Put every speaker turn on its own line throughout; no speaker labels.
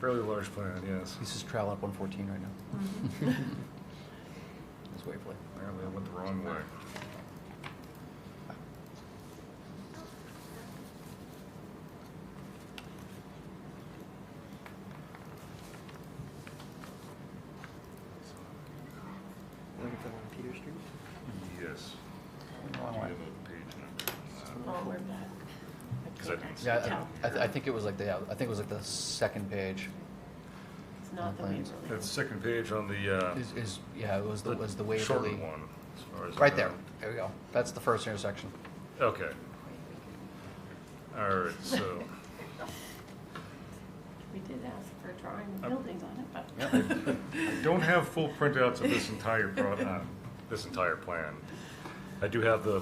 fairly large plan, yes.
He's just traveling up 114 right now.
Mm-hmm.
It's Waverly.
Apparently I went the wrong way.
Looking for one Peter Street?
Yes.
Wrong
Do you
way.
have a page number?
Oh, we're back.
Is that-
Yeah, I- I, th- I think it was like the, yeah, I think it was like the second page.
It's not the
Plans.
Waverly.
That's second page on the, uh.
Is, is, yeah, it was the, was the Waverly.
Shortened one, as far as I
Right there,
know.
there we go. That's the first intersection.
Okay. All right, so
We did ask for a drawing of buildings on it, but.
Yep.
I don't have full printouts of this entire pro, uh, this entire plan. I do have the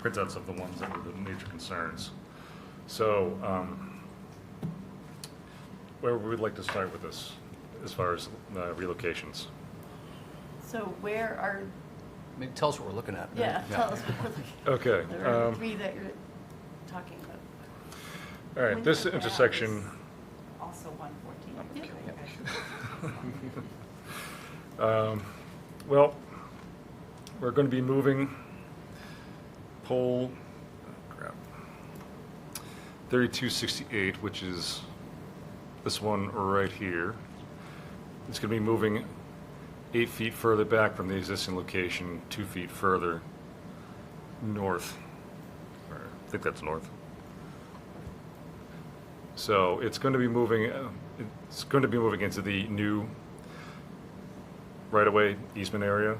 printouts of the ones that were the major concerns. So, um, where would we like to start with this, as far as uh, relocations?
So where are,
Maybe tell us what we're looking at.
yeah, tell us what we're looking
Okay,
at. There are
um,
three that you're talking about.
all right, this
Windsor Ave is
intersection,
Also one fourteen.
um, well, we're gonna be moving pole, crap, thirty-two sixty-eight, which is this one right here. It's gonna be moving eight feet further back from the existing location, two feet further north. Or, I think that's north. So it's going to be moving, uh, it's going to be moving into the new right-of-way easement area.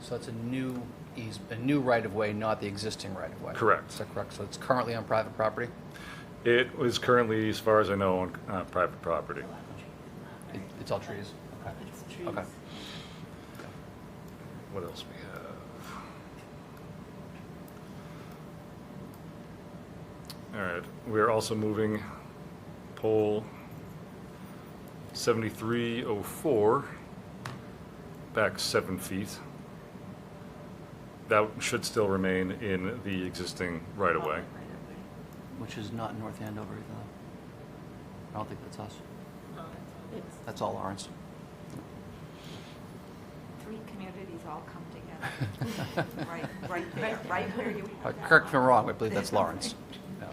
So that's a new eas, a new right-of-way, not the existing right-of-way.
Correct.
Is that correct? So it's currently on private property?
It is currently, as far as I know, on uh, private property.
It- It's all trees? Okay.
It's
Okay.
trees.
What else we have? All right, we're also moving pole 7304 back seven feet. That should still remain in the existing right-of-way.
Which is not North Andover either. I don't think that's us.
It's
That's all ours.
Three communities all come together. Right, right there, right where you
Uh,
have that.
Correct me if I'm wrong, I believe that's Lawrence. Yeah.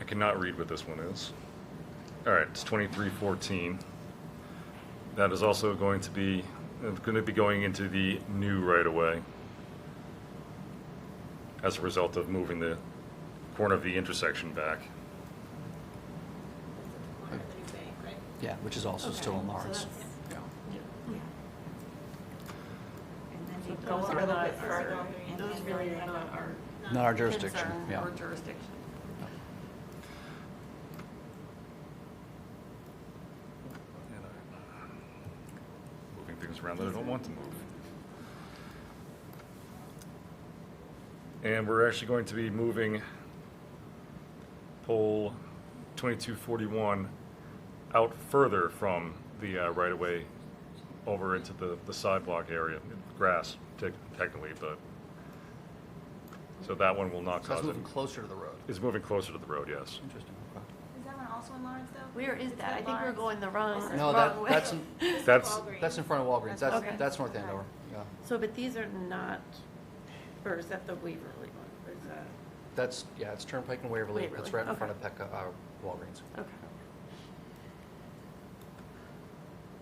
I cannot read what this one is. All right, it's twenty-three fourteen. That is also going to be, it's going to be going into the new right-of-way as a result of moving the corner of the intersection back.
corner of the new bank, right?
Yeah, which is also
Okay,
still in
so
Lawrence.
that's-
Yeah.
Yeah. And then you
So
go a
those are
little
not
bit
our-
further. and
those
then
really
you
are
have
not our-
Not our jurisdiction,
concern
yeah.
Or jurisdiction.
Moving things around that I don't want to move. And we're actually going to be moving pole twenty-two forty-one out further from the uh, right-of-way over into the, the sidewalk area, grass tec- technically, but, so that one will not
So that's
cause it.
moving closer to the road.
It's moving closer to the road, yes.
Interesting.
Is that one also in Lawrence though?
Where is
It's
that?
in
I think we're
Lawrence.
going the wrong,
This is
No,
wrong
that,
way.
that's,
This is
That's-
Walgreens.
that's in front of Walgreens,
Okay.
that's, that's North Andover, yeah.
So, but these are not, or is that the Waverly one? Or is that,
That's, yeah, it's Turnpike and Waverly,
Waverly,
it's right in
okay.
front of Pecca, uh, Walgreens.
okay.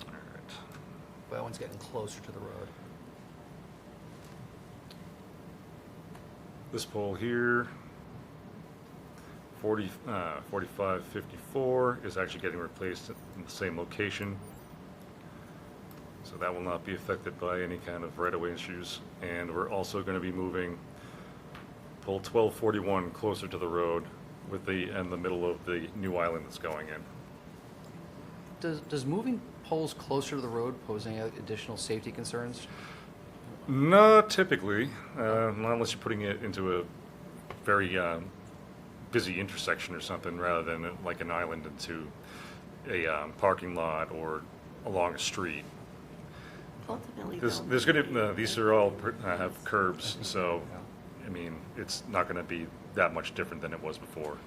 All right.
But that one's getting closer to the road.
this pole here, 40, uh, 4554 is actually getting replaced in the same location. So that will not be affected by any kind of right-of-way issues. And we're also going to be moving pole 1241 closer to the road with the, and the middle of the new island that's going in.
Does, does moving poles closer to the road pose any additional safety concerns?
Not typically, uh, not unless you're putting it into a very um, busy intersection or something, rather than uh, like an island into a um, parking lot or along a street.
Ultimately,
This,
though,
there's gonna, uh, these are all pr- uh, have curbs, so, I mean, it's not gonna be that much different than it was before.